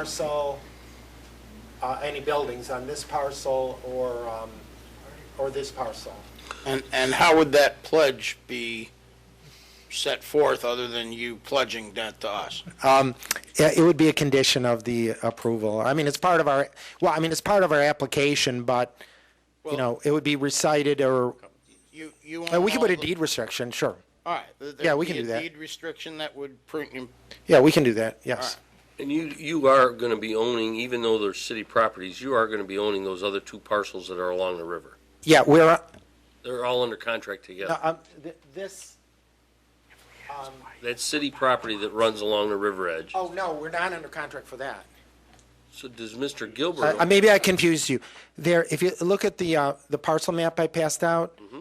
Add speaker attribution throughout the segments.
Speaker 1: parcel, uh, any buildings on this parcel or, um, or this parcel.
Speaker 2: And, and how would that pledge be set forth, other than you pledging that to us?
Speaker 3: Um, yeah, It would be a condition of the approval. I mean, it's part of our, well, I mean, it's part of our application, but, you know, it would be recited or,
Speaker 2: You, you
Speaker 3: uh,
Speaker 2: want
Speaker 3: we could put
Speaker 2: all
Speaker 3: a
Speaker 2: the-
Speaker 3: deed restriction, sure.
Speaker 2: All right. th-
Speaker 3: Yeah, we
Speaker 2: there'd
Speaker 3: can
Speaker 2: be
Speaker 3: do
Speaker 2: a
Speaker 3: that.
Speaker 2: Deed restriction that would print,
Speaker 3: Yeah, we can do that, yes.
Speaker 4: And you, you are going to be owning, even though they're city properties, you are going to be owning those other two parcels that are along the river.
Speaker 3: Yeah, we're,
Speaker 4: They're all under contract
Speaker 3: no,
Speaker 4: together.
Speaker 3: um, th- this,
Speaker 4: That's city property that runs along the river edge.
Speaker 3: oh, no, we're not under contract for that.
Speaker 4: So does Mr.
Speaker 3: Uh,
Speaker 4: Gilbert? own-
Speaker 3: maybe I confused you. There, if you look at the, uh, the parcel map I passed out,
Speaker 4: Mm-hmm.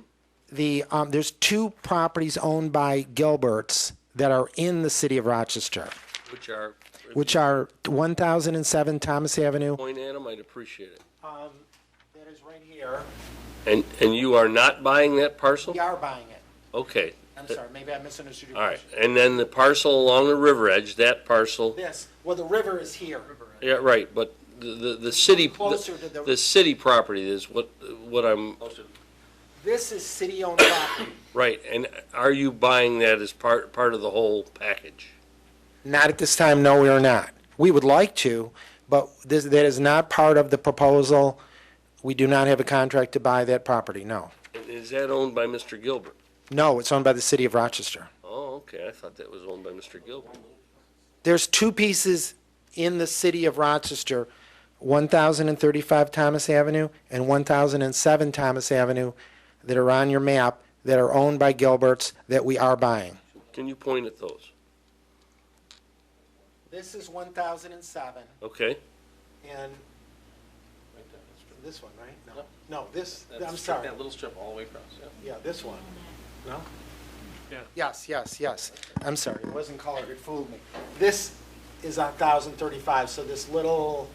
Speaker 3: the, um, there's two properties owned by Gilberts that are in the city of Rochester,
Speaker 4: Which are, if
Speaker 3: which are
Speaker 4: Mm-hmm.
Speaker 3: 1007 Thomas Avenue.
Speaker 4: you point at them, I'd appreciate it.
Speaker 1: That is right here.
Speaker 4: And, and you are not buying that parcel?
Speaker 1: We are buying it.
Speaker 4: Okay,
Speaker 1: I'm sorry, maybe I misunderstood your
Speaker 4: Uh, all right.
Speaker 1: question.
Speaker 4: And then the parcel along the river edge, that parcel,
Speaker 1: This, well, the river is here.
Speaker 4: yeah, right, but the, the, the city,
Speaker 1: Closer to the-
Speaker 4: the the city property is what, what I'm,
Speaker 1: This is city-owned property.
Speaker 4: right. And are you buying that as part, part of the whole package?
Speaker 3: Not at this time, no, we are not. We would like to, but this, that is not part of the proposal. We do not have a contract to buy that property, no.
Speaker 4: And Is that owned by Mr. Gilbert?
Speaker 3: No, it's owned by the city of Rochester.
Speaker 4: Oh, okay, I thought that was owned by Mr. Gilbert.
Speaker 3: There's two pieces in the city of Rochester, 1,035 Thomas Avenue and 1,007 Thomas Avenue that are on your map that are owned by Gilberts that we are buying.
Speaker 4: Can you point at those?
Speaker 1: This is 1,007,
Speaker 4: Okay,
Speaker 1: and this one, right? No, no, this, I'm sorry.
Speaker 5: little strip all the way across, yeah.
Speaker 1: Yeah, this one. No?
Speaker 3: Yes, yes, yes. I'm sorry.
Speaker 1: It wasn't colored, it fooled me. This is on 1,035, so this little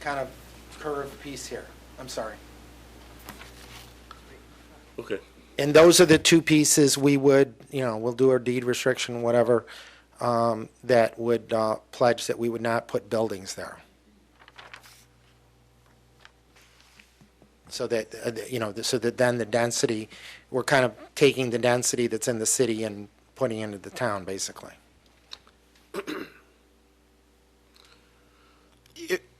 Speaker 1: kind of curved piece here. I'm sorry.
Speaker 4: okay.
Speaker 3: And those are the two pieces we would, you know, we'll do our deed restriction, whatever, um, that would uh, pledge that we would not put buildings there. So that, uh, you know, so that then the density, we're kind of taking the density that's in the city and putting into the town, basically.
Speaker 2: i-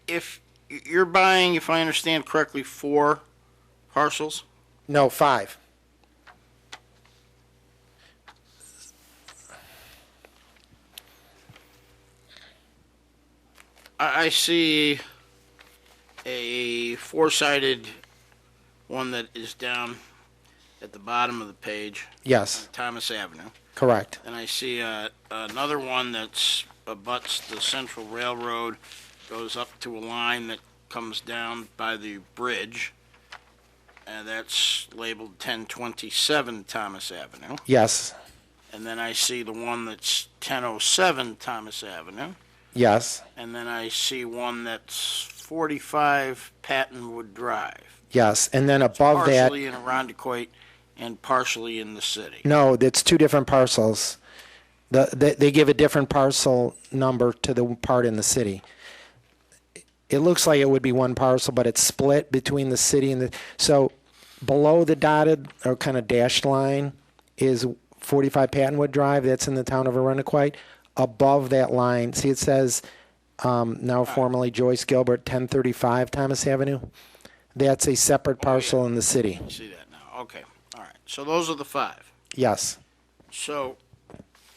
Speaker 2: if you're buying, if I understand correctly, four parcels?
Speaker 3: No, five.
Speaker 2: I, I see a four-sided one that is down at the bottom of the page,
Speaker 3: Yes,
Speaker 2: Thomas Avenue.
Speaker 3: correct.
Speaker 2: And I see uh, another one that's abuts the Central Railroad, goes up to a line that comes down by the bridge, and that's labeled 1027 Thomas Avenue.
Speaker 3: Yes,
Speaker 2: And then I see the one that's 1007 Thomas Avenue.
Speaker 3: yes,
Speaker 2: And then I see one that's 45 Pattonwood Drive.
Speaker 3: yes. And then above that.
Speaker 2: Partially in Arundecoit and partially in the city.
Speaker 3: No, that's two different parcels. The, they, they give a different parcel number to the part in the city. It looks like it would be one parcel, but it's split between the city and the, so below the dotted or kind of dashed line is 45 Pattonwood Drive, that's in the town of Arundequite. Above that line, see it says, um, now formerly Joyce Gilbert, 1035 Thomas Avenue. That's a separate parcel in the city.
Speaker 2: I see that now. Okay. All right. So those are the five.
Speaker 3: Yes,
Speaker 2: So,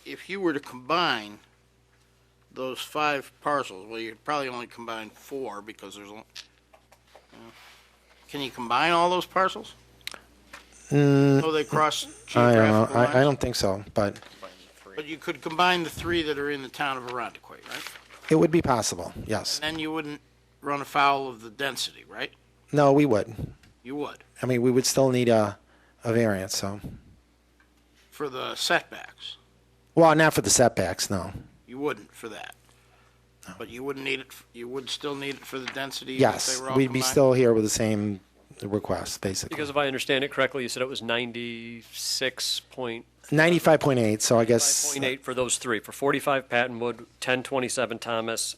Speaker 2: if you were to combine those five parcels, well, you'd probably only combine four because there's, a- can you combine all those parcels? So they cross
Speaker 3: Mm. I don't know,
Speaker 2: geographical
Speaker 3: I, I
Speaker 2: lines?
Speaker 3: don't think so, but.
Speaker 2: But you could combine the three that are in the town of Arundecoit, right?
Speaker 3: It would be possible, yes.
Speaker 2: Then you wouldn't run afoul of the density, right?
Speaker 3: No, we would.
Speaker 2: You would,
Speaker 3: I mean, we would still need a, a variance, so.
Speaker 2: for the setbacks.
Speaker 3: Well, not for the setbacks, no.
Speaker 2: You wouldn't for that. But you wouldn't need it, f- you would still need it for the density? if
Speaker 3: Yes,
Speaker 2: they were all
Speaker 3: we'd be
Speaker 2: combined?
Speaker 3: still here with the same request, basically.
Speaker 6: Because if I understand it correctly, you said it was ninety-six point
Speaker 3: Ninety-five point eight, so I guess.
Speaker 6: point eight for those three, for forty-five Pattonwood, ten twenty-seven Thomas,